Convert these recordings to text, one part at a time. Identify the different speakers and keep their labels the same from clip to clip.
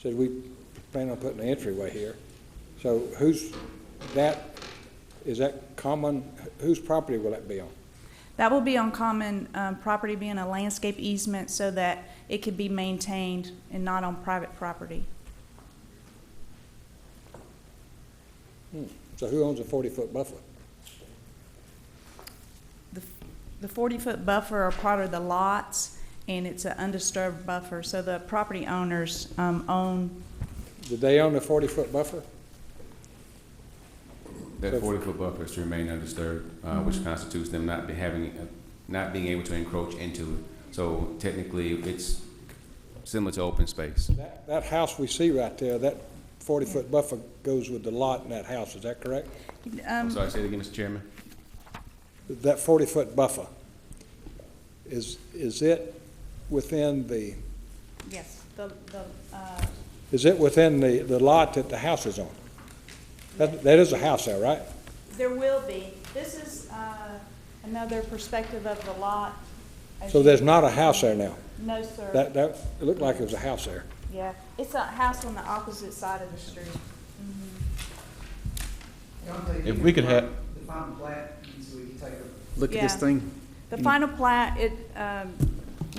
Speaker 1: said, we plan on putting an entryway here. So who's, that, is that common, whose property will that be on?
Speaker 2: That will be on common um, property, being a landscape easement so that it could be maintained and not on private property.
Speaker 1: So who owns a forty-foot buffer?
Speaker 2: The the 40-foot buffer are part of the lots, and it's an undisturbed buffer, so the property owners um, own,
Speaker 1: Did they own a forty-foot buffer?
Speaker 3: That forty-foot buffer is to remain undisturbed, uh, which
Speaker 1: Mm-hmm.
Speaker 3: constitutes them not be having, uh, not being able to encroach into it. So technically, it's similar to open space.
Speaker 1: That, that house we see right there, that forty-foot buffer goes with the lot in that house, is that correct?
Speaker 2: um,
Speaker 3: I'm sorry, say it again, Mr. Chairman?
Speaker 1: That forty-foot buffer, is, is it within the,
Speaker 2: yes, the, the, uh,
Speaker 1: is it within the, the lot that the house is on? That, that is a house there, right?
Speaker 2: there will be. This is uh, another perspective of the lot. as
Speaker 1: So
Speaker 2: you-
Speaker 1: there's not a house there now?
Speaker 2: No, sir.
Speaker 1: That, that, it looked like it was a house there.
Speaker 2: Yeah, it's a house on the opposite side of the street.
Speaker 4: If we could have-
Speaker 5: The final plat, so we can take a
Speaker 4: Look at this
Speaker 2: Yeah.
Speaker 4: thing.
Speaker 2: The final plat, it, um,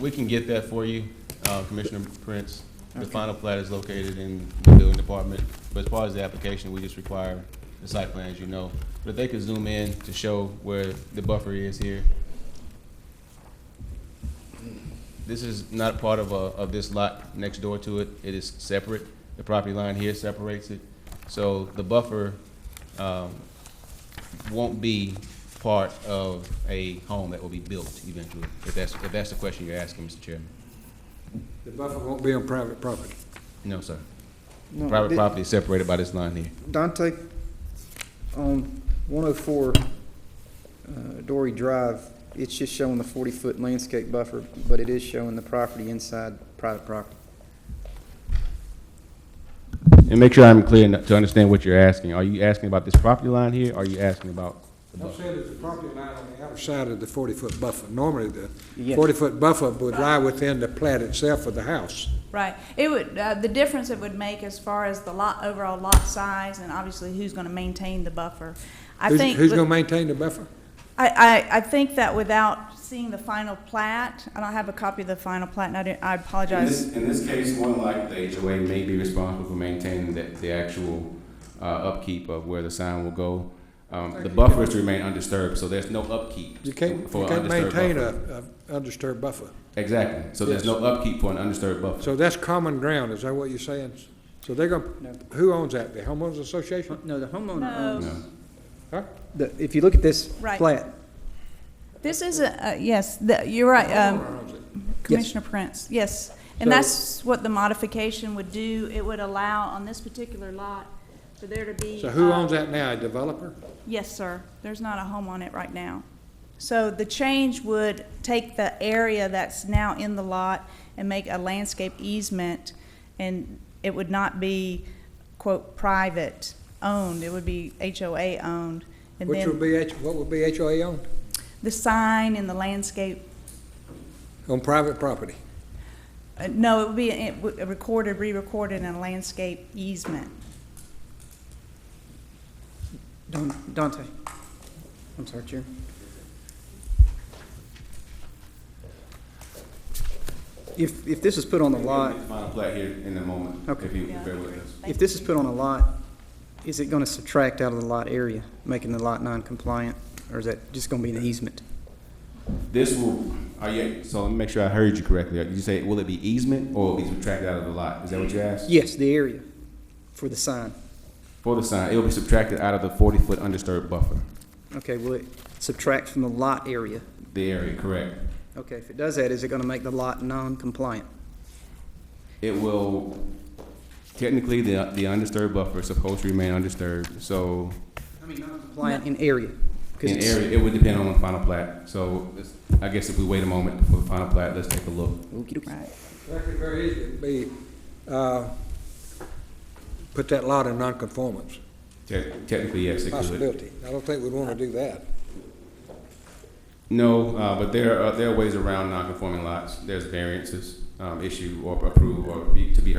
Speaker 3: We can get that for you, uh, Commissioner Prince. The final plat is located in the building department, but as far as the application, we just require the site plan, as you know. But if they could zoom in to show where the buffer is here. This is not part of, uh, of this lot next door to it. It is separate. The property line here separates it. So the buffer, um, won't be part of a home that will be built eventually, if that's, if that's the question you're asking, Mr. Chairman.
Speaker 1: The buffer won't be on private property.
Speaker 3: No, sir.
Speaker 4: No,
Speaker 3: Private
Speaker 4: did-
Speaker 3: property is separated by this line here.
Speaker 4: Dante, on one oh four, uh, Dory Drive, it's just showing the forty-foot landscape buffer, but it is showing the property inside private property.
Speaker 3: And make sure I'm clear enough to understand what you're asking. Are you asking about this property line here, or are you asking about? the
Speaker 1: I'm
Speaker 3: buffer?
Speaker 1: saying there's a property line on the outer side of the forty-foot buffer. Normally, the
Speaker 4: Yes.
Speaker 1: forty-foot buffer would lie within the plat itself of the house.
Speaker 2: right, it would, uh, the difference it would make as far as the lot, overall lot size, and obviously who's gonna maintain the buffer. I
Speaker 1: Who's-
Speaker 2: think,
Speaker 1: Who's
Speaker 2: with-
Speaker 1: gonna maintain the buffer?
Speaker 2: I, I, I think that without seeing the final plat, I don't have a copy of the final plat, and I didn't, I
Speaker 3: In
Speaker 2: apologize.
Speaker 3: this, in this case, more than likely, the HOA may be responsible for maintaining the, the actual, uh, upkeep of where the sign will go. Um, the buffer is to remain undisturbed, so there's no upkeep.
Speaker 1: You can't,
Speaker 3: for
Speaker 1: you
Speaker 3: an
Speaker 1: can't
Speaker 3: undisturbed
Speaker 1: maintain
Speaker 3: buffer.
Speaker 1: a, a undisturbed buffer.
Speaker 3: Exactly, so there's no upkeep for an undisturbed buffer.
Speaker 1: So that's common ground, is that what you're saying? So they're
Speaker 4: No.
Speaker 1: gonna, who owns that? The homeowners association?
Speaker 4: No, the homeowner
Speaker 2: No.
Speaker 3: No.
Speaker 1: Huh?
Speaker 4: The, if you look at this
Speaker 2: Right.
Speaker 4: plat,
Speaker 2: This is, a- uh, yes, the- you're right, um, Commissioner Prince, yes. And
Speaker 4: So-
Speaker 2: that's what the modification would do, it would allow on this particular lot for there to be.
Speaker 1: So who
Speaker 2: um,
Speaker 1: owns that now? A developer?
Speaker 2: Yes, sir. There's not a home on it right now. So the change would take the area that's now in the lot and make a landscape easement, and it would not be, quote, private owned. It would be HOA owned. And
Speaker 1: Which would
Speaker 2: then
Speaker 1: be, H- what would be HOA owned?
Speaker 2: the sign and the landscape,
Speaker 1: On private property?
Speaker 2: uh, no, it would be it would- recorded, re-recorded in a landscape easement.
Speaker 4: Don- Dante, I'm sorry, Chair. If, if this is put on the lot,
Speaker 3: Final plat here in a moment,
Speaker 4: Okay.
Speaker 3: if you would bear with us.
Speaker 4: if this is put on a lot, is it gonna subtract out of the lot area, making the lot non-compliant? Or is that just gonna be an easement?
Speaker 3: This will, are you, so let me make sure I heard you correctly. Did you say, will it be easement or will it be subtracted out of the lot? Is that what you asked?
Speaker 4: Yes, the area for the sign.
Speaker 3: For the sign, it will be subtracted out of the forty-foot undisturbed buffer,
Speaker 4: Okay, will it subtract from the lot area?
Speaker 3: the area, correct?
Speaker 4: Okay, if it does that, is it gonna make the lot non-compliant?
Speaker 3: It will, technically, the, the undisturbed buffer is supposed to remain undisturbed, so
Speaker 4: I mean, non-compliant in area? 'cause
Speaker 3: in
Speaker 4: it's-
Speaker 3: area, it would depend on the final plat. So it's- I guess if we wait a moment for the final plat, let's take a look.
Speaker 4: Okey-dokey.
Speaker 2: Right.
Speaker 1: That could very easily be, uh, put that lot in nonconformance,
Speaker 3: Te- Technically, yes, it could.
Speaker 1: possibility. I don't think we'd want to do that.
Speaker 3: No, uh, but there are, there are ways around non-conforming lots. There's variances, um, issued or approved or be, to be